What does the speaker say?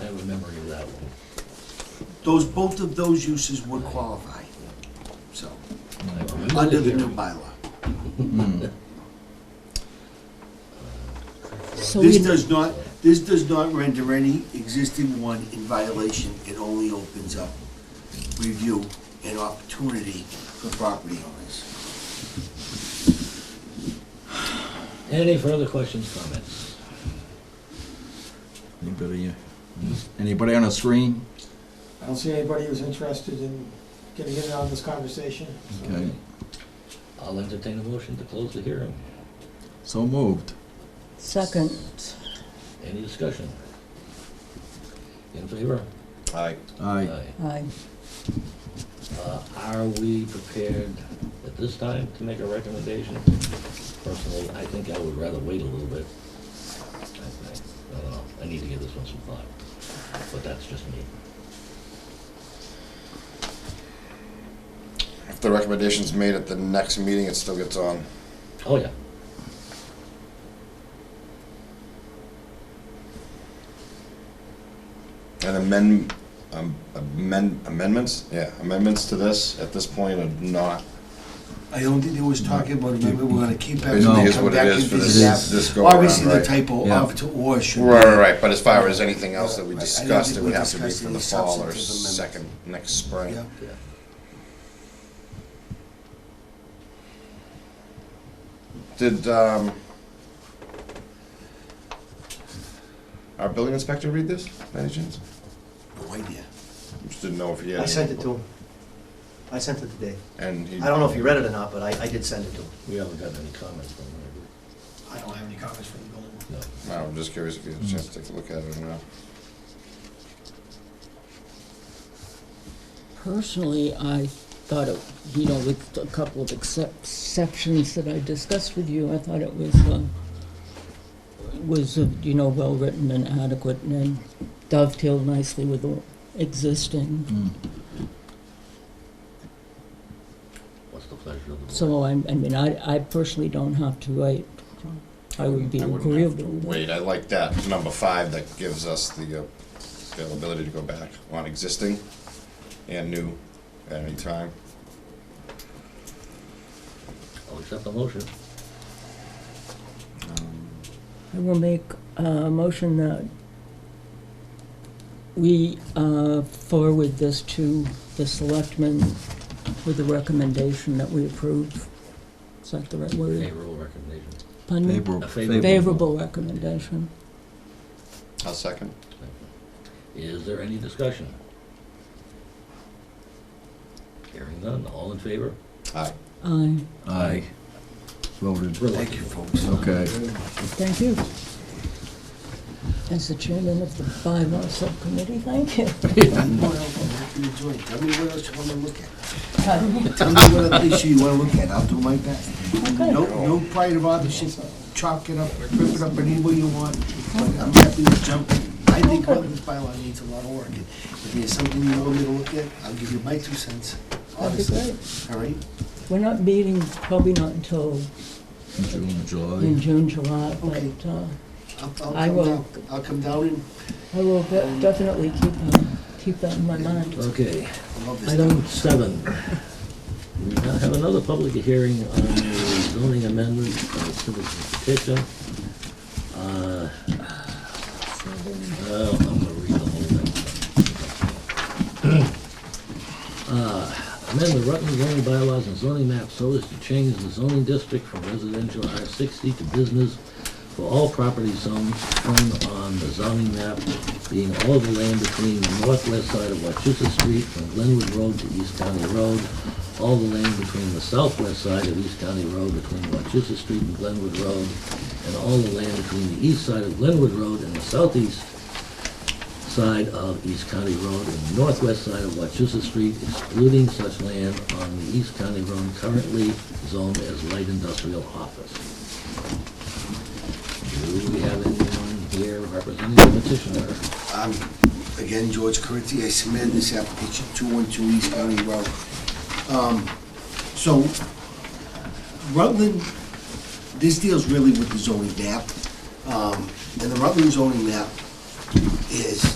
Those, both of those uses would qualify, so, I believe under it the is. new bylaw. So This we, does not, this does not render any existing one in violation. It only opens up review and opportunity for property owners. Any further questions, comments? Anybody, uh, anybody on the screen? I don't see anybody who's interested in getting in on this conversation. so- Okay, I'll entertain a motion to close the hearing. so moved. second, Any discussion? In favor? Aye. Aye. aye. Uh, Are we prepared at this time to make a recommendation? Personally, I think I would rather wait a little bit. I think. I don't know, I need to give this one some thought, but that's just me. If the recommendation's made at the next meeting, it still gets on. Oh, yeah. And amend, um, amend, amendments, yeah, amendments to this at this point are not. I don't think there was talking about, remember, we're gonna keep It everything, is come what it back and is for visit this, that. this go around, Obviously, the right? Right, typo Yeah. of to or should be. right, right, but as far as anything else that we Right, I don't discussed, think it we would have to be discussed for any the fall or substantive amendments. second, next spring. Yeah. Yeah. Did, um, our building inspector read this, by any chance? No idea. Just didn't know if he had. I any- sent it to him. I sent it today. And he. I don't know if you read it or not, but I, I did send it to him. We haven't gotten any comments from her. I don't have any comments from the building. No. No, I'm just curious if you had a chance to take a look at it or not. Personally, I thought it, you know, with a couple of excep- exceptions that I discussed with you, I thought it was, uh, was, uh, you know, well-written and adequate and dovetailed nicely with the existing. Mm. What's the pleasure of the board? So I, I mean, I, I personally don't have to write. I would be I wouldn't have to agreeable. with that. Wait, I like that, number five, that gives us the uh, availability to go back on existing and new at any time. I'll accept the motion. I will make a motion that we uh, forward this to the selectmen with the recommendation that we approve. Is that the right word? Favorable recommendation. Pardon me? Favorable. A favorable- Favorable recommendation. I'll second. Is there any discussion? Hearing none, all in favor? Aye. Aye, Aye. Voted. Thank you, folks. Okay. thank you. As the chairman of the bylaw subcommittee, thank you. What else? I'm happy to join. Tell me what else you wanna look at. Pardon me? Tell me what other issue you wanna look at, I'll do my best. No, no pride of authorship, chalk it up, rip it up any way you want, but I'm happy to jump in. I think what this bylaw needs a lot of work, and if there's something you want me to look at, I'll give you my two cents, That'd be honestly, great. all right? We're not meeting, probably not until June, July. in June, July, Okay. but uh, I'll, I'll I come will. down, I'll come down and, I will de- definitely keep, um, keep that in my mind. Okay, I love this. item seven. We now have another public hearing on the zoning amendment of citizen petition. Uh, well, I'm gonna read the whole thing. Uh, Amend the Rutland zoning bylaws and zoning map so as to change the zoning district from residential R sixty to business for all property zones shown on the zoning map being all the land between the northwest side of Wachusett Street from Glenwood Road to East County Road, all the land between the southwest side of East County Road between Wachusett Street and Glenwood Road, and all the land between the east side of Glenwood Road and the southeast side of East County Road and the northwest side of Wachusett Street, excluding such land on the East County Road currently zoned as light industrial office. Do we have anyone here representing the petitioner? I'm, Um, again, George Curtsey, I submitted this application, 212 East County Road. Um, So, Rutland, this deals really with the zoning map, Um, and the Rutland zoning map is